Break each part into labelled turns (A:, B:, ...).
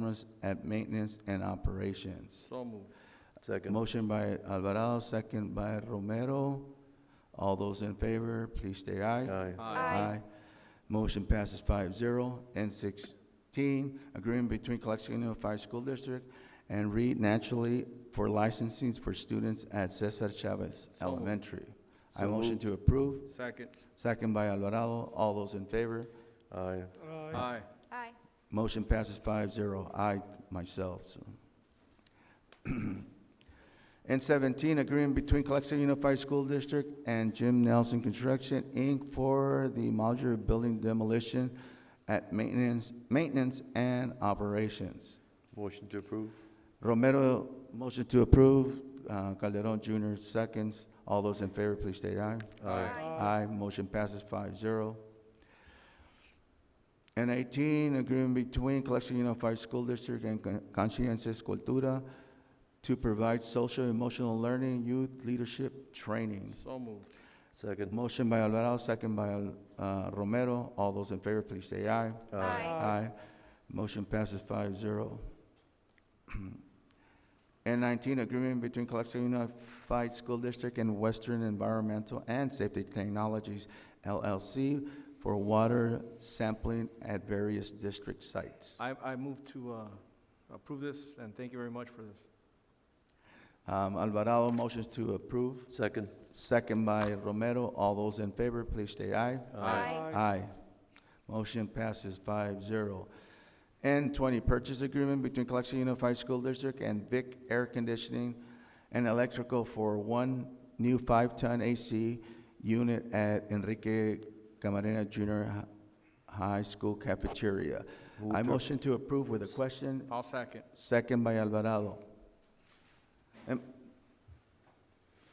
A: Generals at Maintenance and Operations.
B: So moved.
C: Second.
A: Motion by Alvarado, second by Romero. All those in favor, please state aye.
C: Aye.
B: Aye.
A: Motion passes five zero. N sixteen, agreement between Colexico Unified School District and Reed Naturally for licensing for students at Cesar Chavez
B: So moved.
A: Elementary. I
C: So
A: motion
C: moved.
A: to approve,
B: Second.
A: second by Alvarado. All those in favor,
C: Aye.
B: Aye.
D: Aye.
A: Motion passes five zero. I myself, so. N seventeen, agreement between Calexico Unified School District and Jim Nelson Construction, Inc. for the modular building demolition at maintenance, maintenance and operations.
C: Motion to approve.
A: Romero, motion to approve. Uh, Calderon Junior, seconds. All those in favor, please state aye. Aye, motion passes five zero. And eighteen, agreement between Calexico Unified School District and Con- Consciences Cultura to provide social emotional learning, youth leadership training.
B: So moved.
C: Second.
A: Motion by Alvarado, second by uh, Romero. All those in favor, please say aye. Aye. Motion passes five zero. N nineteen, agreement between Calexico Unified School District and Western Environmental and Safety Technologies LLC for water sampling at various district sites.
B: I, I move to uh, approve this, and thank you very much for this.
A: Um, Alvarado motions to approve,
C: Second.
A: second by Romero. All those in favor, please state aye. Aye. Motion passes five zero. N twenty, purchase agreement between Calexico Unified School District and Vic Air Conditioning and Electrical for one new five-ton AC unit at Enrique Camarena Junior Hi- High School cafeteria.
C: Move
A: I
C: to-
A: motion to approve with a question,
B: I'll second.
A: second by Alvarado. Em-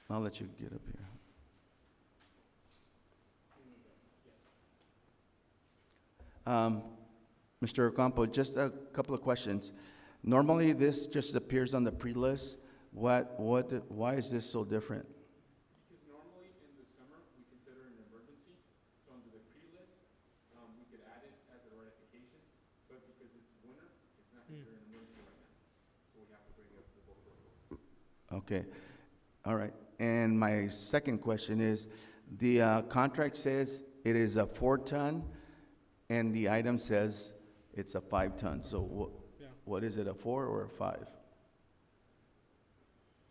A: I'll let you get up here. Um, Mr. Ocampo, just a couple of questions. Normally, this just appears on the pre-list. What, what, why is this so different? Okay, all right. And my second question is, the uh, contract says it is a four-ton, and the item says it's a five-ton. So what,
E: Yeah.
A: what is it, a four or a five?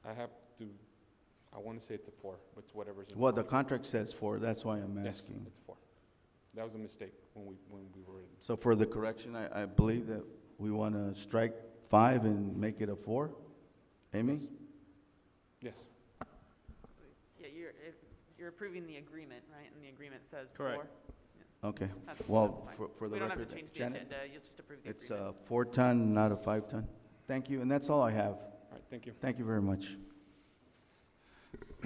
E: I have to, I want to say it's a four, but it's whatever's. in
A: Well, the
E: contract.
A: contract says four, that's why I'm
E: Yes,
A: asking.
E: It's a four. That was a mistake when we, when we were in.
A: So for the correction, I, I believe that we want to strike five and make it a four? Amy?
E: Yes,
F: Yeah, you're, if- you're approving the agreement, right? And the agreement says four.
B: Correct.
A: Okay,
F: That's- that's
A: well,
F: fine.
A: for, for the
F: We don't have
A: record,
F: to change the
A: Janet,
F: agenda, you'll just approve the
A: it's
F: agreement.
A: a four-ton, not a five-ton. Thank you, and that's all I have.
E: all right, thank you.
A: Thank you very much.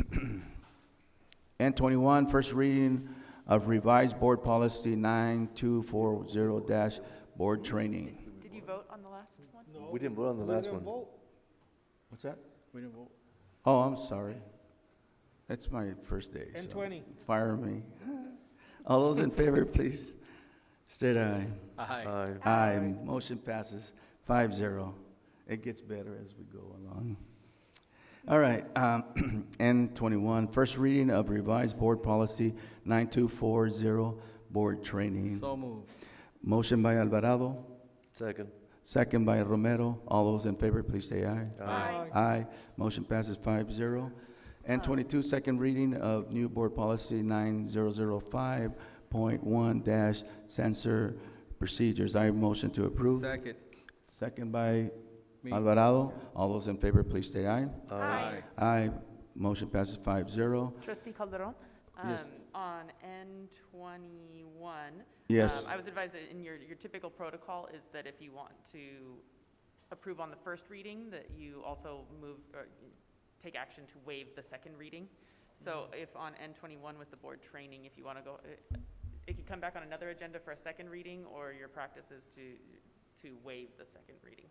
A: N twenty-one, first reading of revised board policy nine two four zero dash board training.
F: Did you vote on the last one?
C: We didn't vote on the last one.
A: What's that?
B: We didn't vote.
A: Oh, I'm sorry. That's my first day, so fire me. All those in favor, please state aye.
B: Aye.
C: Aye.
A: Aye, motion passes five zero. It gets better as we go along. All right, um, N twenty-one, first reading of revised board policy nine-two-four-zero, board training.
B: So moved.
A: Motion by Alvarado,
C: Second.
A: second by Romero. All those in favor, please say aye. Aye, motion passes five zero. And twenty-two, second reading of new board policy nine zero zero five point one dash censor procedures. I motion to approve.
B: Second.
A: Second by
B: Me.
A: Alvarado. All those in favor, please state aye.
B: Aye.
A: Aye, motion passes five zero.
F: Trustee Calderon?
A: Yes.
F: um, On N twenty-one.
A: Yes.
F: Um, I was advised that in your, your typical protocol is that if you want to approve on the first reading, that you also move, or take action to waive the second reading. So
A: Mm-hmm.
F: if on N twenty-one with the board training, if you want to go, it- it could come back on another agenda for a second reading, or your practice is to, to waive the second reading.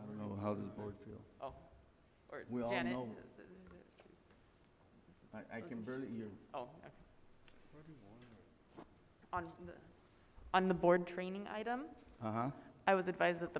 A: I don't know, how does the board feel?
F: Oh, or
A: We all
F: Janet?
A: know. I, I can barely hear.
F: Oh, okay. On the, on the board training item,
A: Uh-huh,
F: I was advised that the